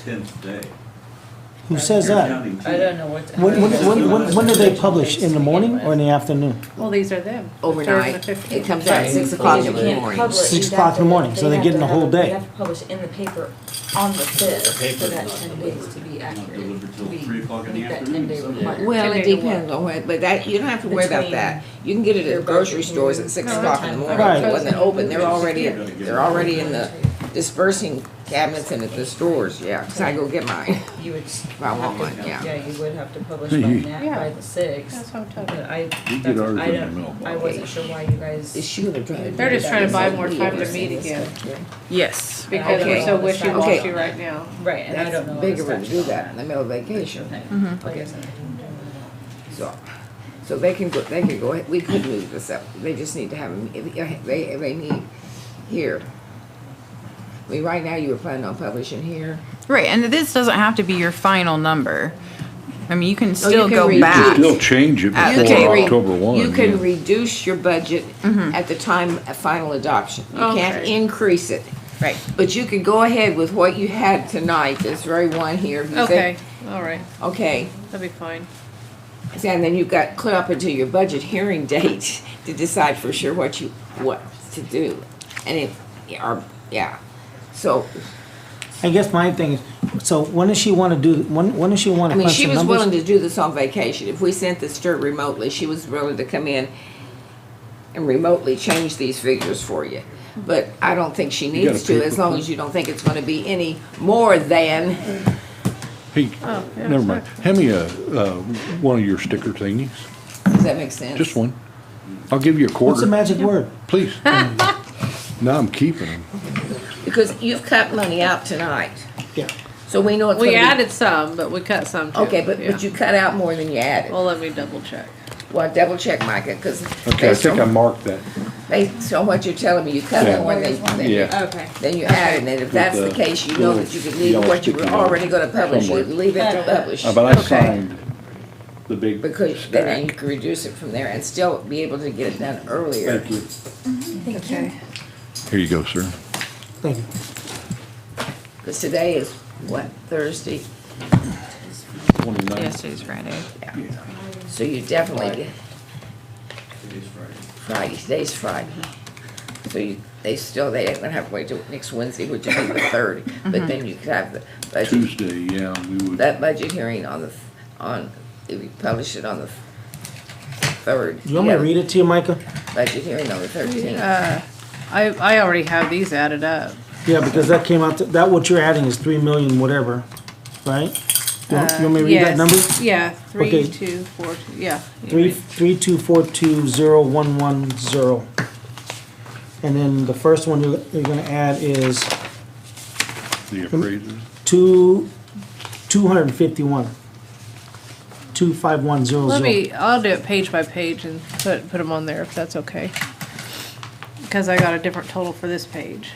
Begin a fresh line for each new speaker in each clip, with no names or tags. tenth day.
Who says
You're
that?
counting
I don't
two.
know what.
When, when, when- when, when do they publish? In the morning or in the afternoon?
Well, these are them. the third and
overnight.
the
It
15th.
comes out at six o'clock in
You
the
can't
morning.
publish-
So
Six
you'd
o'clock
have
in the
to-
morning, so they're
have
getting
to
the whole
have-
day.
You have to publish in the paper on the fifth for
paper's
that
not
ten days
delivered.
to be
Not
accurate.
delivered till
We
3:00 in the
meet that
afternoon
10-day
someday.
requirement.
Well, it
Ten day to
depends on what, but that, you don't have to worry about
Between
that. You can get it
your
at grocery
budget
stores
and
at six
your
o'clock in the
time.
morning.
Right.
If It wasn't open, they're already,
You're gonna get
they're
it.
already in the dispersing cabinets and at the stores, yeah, 'cause I go get mine.
You would.
I want
have to-
mine, yeah.
you would have to publish by that, by the
That's
sixth.
what I'm talking
But
about.
I,
You
that's,
get
what-
ours
I
in the
don't, I
mailbox.
wasn't sure why you guys.
They're just trying to buy more time to meet again
Yes.
because
Okay.
we're so
Okay.
wishy-washy right now.
Right, and I don't know.
That's
all the
bigger to
steps
do
on
that in the middle of vacation.
Okay.
Mm-hmm.
Okay.
So, so they can go, they can go, ahead. we could move this up, they just need to have, a me- they, they need here. I mean, right now you were planning on publishing here.
Right, and this doesn't have to be your final number. I mean, you can still
Oh, can
go
reduce.
back.
You
They'll change it
At the
before
table.
October one.
You
yeah.
can reduce your budget
Mm-hmm.
at the time of final adoption. You can't
Okay.
increase it,
Right.
but you could go ahead with what you had tonight, this very one here. if you think-
Okay, all right,
Okay,
that'll be fine.
and then you've got clear up until your budget hearing date to decide for sure what you, what to do. And if, or, yeah, so
I guess my thing is, so when does she wanna do, when, when does she wanna
I mean,
crunch
she
the
was willing
numbers?
to do this on vacation. If we sent this to her remotely, she was willing to come in and remotely change these figures for you. But I don't think she
You got
needs
a
to,
paper
as long as you don't think it's gonna be any more than,
Hey,
Oh,
yeah,
never mind.
sorry.
Hand me a, uh, one of your sticker thingies,
does that make sense?
just one. I'll give you a
What's the
quarter,
magic word?
please. No, I'm keeping them.
Because you've cut money out tonight,
Yeah.
so we know it's gonna
We
be.
added some, but we cut some too.
Okay, but,
yeah.
but you cut out more than you added.
Well, let me double check.
Well, double check, Micah, cause
Okay, I
based
think I
on,
marked that.
based on what you're telling me, you cut
Yeah.
out more than, than you
Yeah.
Okay.
Then you add it, and if that's the
the
case, you know that you could leave
little
what you were
yellow sticky
already gonna publish, you
somewhere.
leave it to
That'll-
publish.
Uh, But I
Okay.
signed the big
Because then you
stack.
can reduce it from there and still be able to get it done earlier.
Thank you.
Okay.
Here you go, sir.
Thank you.
Because today is, what, Thursday?
Twenty-nine.
Yesterday's Friday.
So you definitely get,
Today's Friday.
Friday, today's Friday. So you, they still, they ain't gonna have to wait till next Wednesday, which would be the third, but then you could have the budget,
Tuesday, yeah, we would.
that budget hearing on the, on, if you publish it on the third.
You want me to read it to you, Micah?
Budget hearing on the thirteenth.
I, I already have these added up.
Yeah, because that came out, to- that what you're adding is three million whatever, right? You want you want me to read that
Uh,
Yes.
number?
Yeah, three,
Okay.
two, four, two, yeah. you
Three,
read.
three, two, four, two, zero, one, one, zero. And then the first one you're, you're gonna add is
The appraisal.
two, two hundred and fifty-one. Two, five, one, zero, zero.
Let me, I'll do it page by page and put, put them on there if that's okay. Cause I got a different total for this page.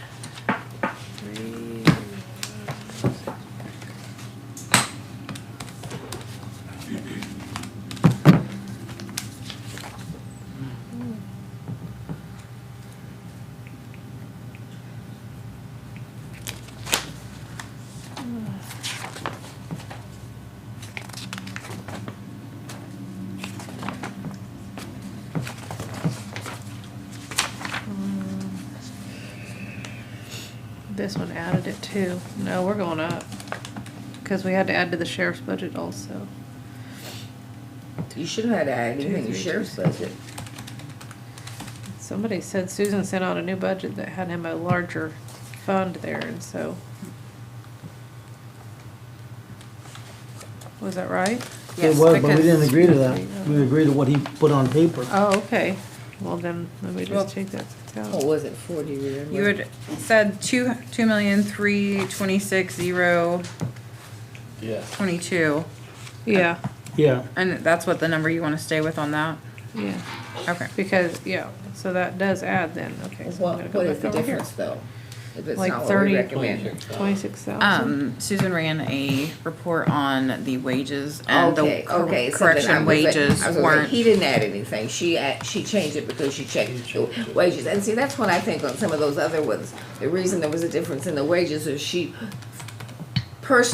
This one added it too. No, we're going up. Cause we had to add to the sheriff's budget also.
You should have had to add anything in the sheriff's budget.
Somebody said Susan sent out a new budget that had him a larger fund there and so. Was that right?
It was, but we
because-
didn't agree to that. We agreed to what he put on paper.
Oh, okay. Well, then, let me
Well-
just take that
Oh,
out.
What was it, forty, remember?
You had said two, two million, three, twenty-six, zero,
Yeah.
twenty-two,
Yeah,
Yeah,
and that's what the number you wanna stay with on that?
yeah,
Okay.
because, yeah, so that does add then, okay. so I'm
What,
gonna
what
go
is
back
the
over here.
difference though? If it's
Like
not what
30.
we recommend.
Twenty-six thousand.
Um, Susan ran a report on the wages and the
Okay, okay,
cor-
so then I
correction
was like-
wages
I was like,
weren't.
He didn't add anything, she add, she changed it because she checked the wages, and see, that's what I think on some of those other ones. The reason there was a difference in the wages is she personally